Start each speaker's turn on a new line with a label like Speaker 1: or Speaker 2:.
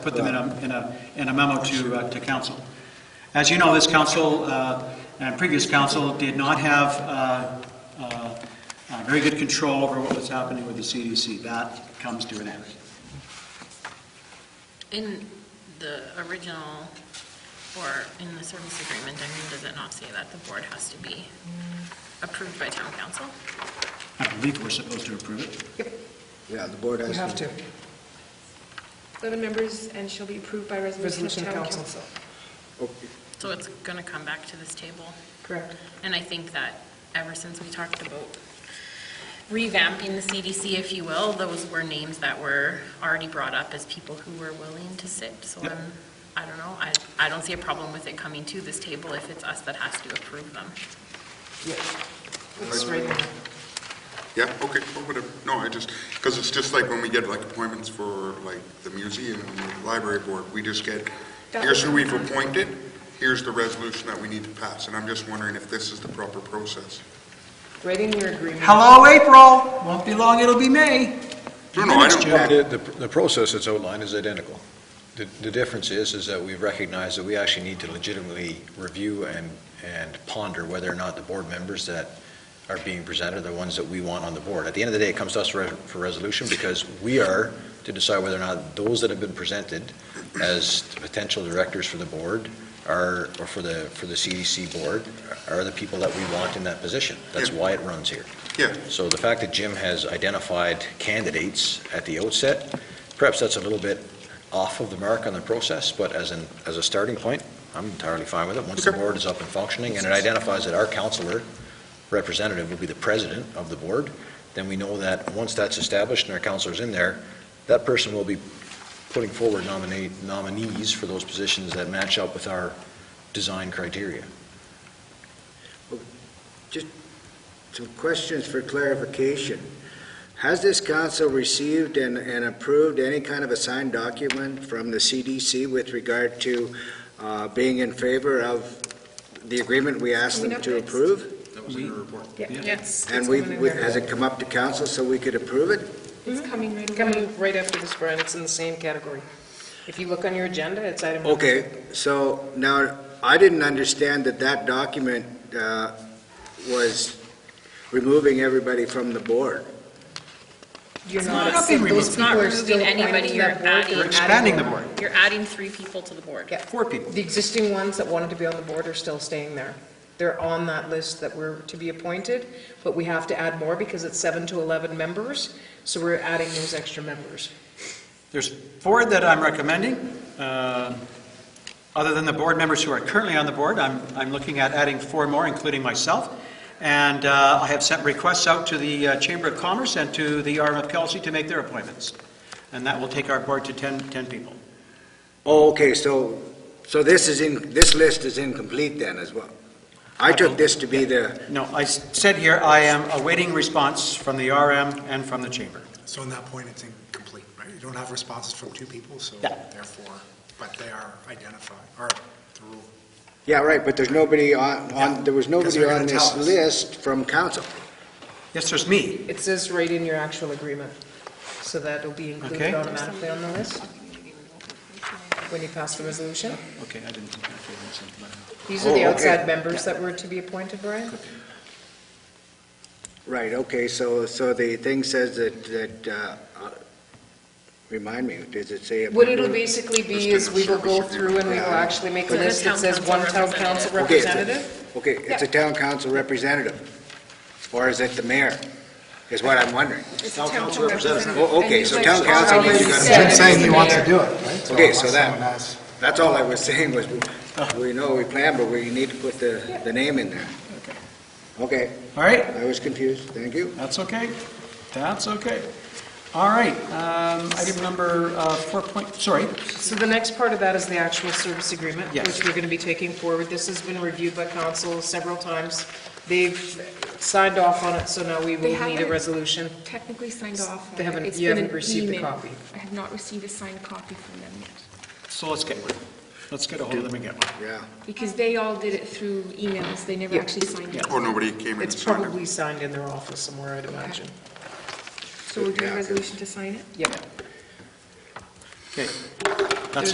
Speaker 1: put them in a, in a, in a memo to, uh, to council. As you know, this council, uh, and previous council did not have, uh, uh, uh, very good control over what was happening with the CDC. That comes to an end.
Speaker 2: In the original, or in the service agreement, I mean, does it not say that the board has to be approved by town council?
Speaker 1: I believe we're supposed to approve it.
Speaker 3: Yeah, the board has
Speaker 4: You
Speaker 3: to.
Speaker 4: have to,
Speaker 5: 11 members and shall be approved by resolution of
Speaker 4: resolution
Speaker 5: town council.
Speaker 4: council.
Speaker 3: Okay.
Speaker 2: So it's going to come back to this table.
Speaker 4: Correct.
Speaker 2: And I think that ever since we talked about revamping the CDC, if you will, those were names that were already brought up as people who were willing to sit. So
Speaker 1: Yep.
Speaker 2: I'm, I don't know, I, I don't see a problem with it coming to this table if it's us that has to approve them.
Speaker 4: Yeah. It's right there.
Speaker 6: Yeah, okay, well, whatever, no, I just, because it's just like when we get like appointments for like the museum and the library board, we just get,
Speaker 5: That
Speaker 6: here's
Speaker 5: was-
Speaker 6: who we've appointed, here's the resolution that we need to pass, and I'm just wondering if this is the proper process.
Speaker 4: Right in your agreement.
Speaker 1: Hello, April. Won't be long, it'll be May.
Speaker 6: No, no, I
Speaker 1: Minutes, Joe.
Speaker 6: don't,
Speaker 7: The, the- the process that's outlined is identical. The, the difference is, is that we recognize that we actually need to legitimately review and, and ponder whether or not the board members that are being presented are the ones that we want on the board. At the end of the day, it comes to us for, res- for resolution because we are to decide whether or not those that have been presented as the potential directors for the board are, or for the, for the CDC board, are the people that we want in that position. That's
Speaker 6: Yeah.
Speaker 7: why it runs here.
Speaker 6: yeah,
Speaker 7: So the fact that Jim has identified candidates at the outset, perhaps that's a little bit off of the mark on the process, but as an, as a starting point, I'm entirely fine with it. Once the
Speaker 6: Okay.
Speaker 7: board is up and functioning, and it identifies that our counselor representative will be the president of the board, then we know that once that's established and our counselor's in there, that person will be putting forward nominate, nominees for those positions that match up with our design criteria.
Speaker 3: Some questions for clarification. Has this council received and, and approved any kind of a signed document from the CDC with regard to uh, being in favor of the agreement we asked
Speaker 5: Coming
Speaker 3: them
Speaker 5: up
Speaker 3: to
Speaker 5: next.
Speaker 3: approve?
Speaker 7: That was in her report.
Speaker 4: Yes.
Speaker 3: And we, we- has it come up to council so we could approve it?
Speaker 5: It's coming right away.
Speaker 4: Coming right after this, Brian, it's in the same category. If you look on your agenda, it's item. number-
Speaker 3: Okay, so now, I didn't understand that that document uh, was removing everybody from the board.
Speaker 4: You're
Speaker 2: It's
Speaker 4: not.
Speaker 2: not
Speaker 1: being
Speaker 4: those
Speaker 1: removed.
Speaker 4: people are
Speaker 2: It's not
Speaker 4: still
Speaker 2: removing anybody,
Speaker 4: appointed to
Speaker 2: you're
Speaker 4: that board,
Speaker 2: adding-
Speaker 4: they're
Speaker 2: You're
Speaker 1: expanding the
Speaker 4: them.
Speaker 1: board.
Speaker 2: You're adding three people to the board.
Speaker 4: Yeah.
Speaker 1: Four people.
Speaker 4: The existing ones that wanted to be on the board are still staying there. They're on that list that were to be appointed, but we have to add more because it's seven to 11 members, so we're adding those extra members.
Speaker 1: There's four that I'm recommending. Um, Other than the board members who are currently on the board, I'm, I'm looking at adding four more, including myself. And uh, I have sent requests out to the uh, Chamber of Commerce and to the arm of Kelsey to make their appointments. And that will take our board to 10, 10 people.
Speaker 3: Oh, okay, so, so this is in, this list is incomplete then as well? I took this to be the,
Speaker 1: No, I s- said here, I am awaiting response from the RM and from the Chamber.
Speaker 8: So on that point, it's incomplete, right? You don't have responses from two people, so
Speaker 1: Yeah.
Speaker 8: therefore, but they are identified, or the rule.
Speaker 3: yeah, right, but there's nobody on, on, there was
Speaker 8: Because
Speaker 3: nobody
Speaker 8: they're
Speaker 3: on
Speaker 8: gonna
Speaker 3: this
Speaker 8: tell us.
Speaker 3: list from council.
Speaker 1: Yes, there's me.
Speaker 4: It says right in your actual agreement, so that'll be
Speaker 1: Okay.
Speaker 4: included automatically on the list when you pass the resolution.
Speaker 1: Okay, I didn't think I could have sent them out.
Speaker 4: These are the
Speaker 3: Oh, okay.
Speaker 4: outside members that were to be appointed, Brian?
Speaker 3: Right, okay, so, so the thing says that, that, uh, uh, remind me, does it say? a
Speaker 4: What it'll
Speaker 3: member?
Speaker 4: basically be is we will go through and we will actually make a
Speaker 2: With a
Speaker 4: list that
Speaker 2: town
Speaker 4: says
Speaker 2: council
Speaker 4: one town council
Speaker 3: Okay, it's a-
Speaker 4: representative.
Speaker 3: Okay, it's a town council representative, or is it the mayor, is what I'm wondering.
Speaker 5: It's a town representative.
Speaker 3: Oh, okay,
Speaker 5: And
Speaker 3: so
Speaker 5: he's
Speaker 3: town
Speaker 5: like-
Speaker 3: council means you gotta.
Speaker 4: said
Speaker 8: Jim's
Speaker 4: it's
Speaker 8: saying
Speaker 4: the
Speaker 8: he wants to
Speaker 4: mayor.
Speaker 8: do it, right?
Speaker 3: Okay,
Speaker 8: unless
Speaker 3: so that-
Speaker 8: someone else-
Speaker 3: That's all I was saying was, we know we plan, but we need to put the, the name in there. Okay,
Speaker 1: All right,
Speaker 3: I was confused, thank you.
Speaker 1: That's okay. That's okay. All right, um, item number uh, four point, sorry,
Speaker 4: So the next part of that is the actual service agreement,
Speaker 1: Yes.
Speaker 4: which we're going to be taking forward. This has been reviewed by council several times. They've signed off on it, so now we
Speaker 5: They
Speaker 4: will need a
Speaker 5: haven't-
Speaker 4: resolution.
Speaker 5: Technically signed off. on
Speaker 4: They
Speaker 5: it.
Speaker 4: haven't-
Speaker 5: It's
Speaker 4: you
Speaker 5: been
Speaker 4: haven't
Speaker 5: an
Speaker 4: received the
Speaker 5: email.
Speaker 4: copy.
Speaker 5: I have not received a signed copy from them yet,
Speaker 1: so let's get one. Let's get a hold of them and get one.
Speaker 3: Yeah,
Speaker 5: because they all did it through emails, they never
Speaker 4: Yeah.
Speaker 5: actually signed it.
Speaker 6: or Oh, nobody came in and
Speaker 4: It's
Speaker 6: signed it.
Speaker 4: probably signed in their office somewhere, I'd imagine.
Speaker 5: So we're doing
Speaker 3: Yeah,
Speaker 5: a
Speaker 3: 'cause-
Speaker 5: resolution to sign it?
Speaker 4: Yep.
Speaker 1: Okay,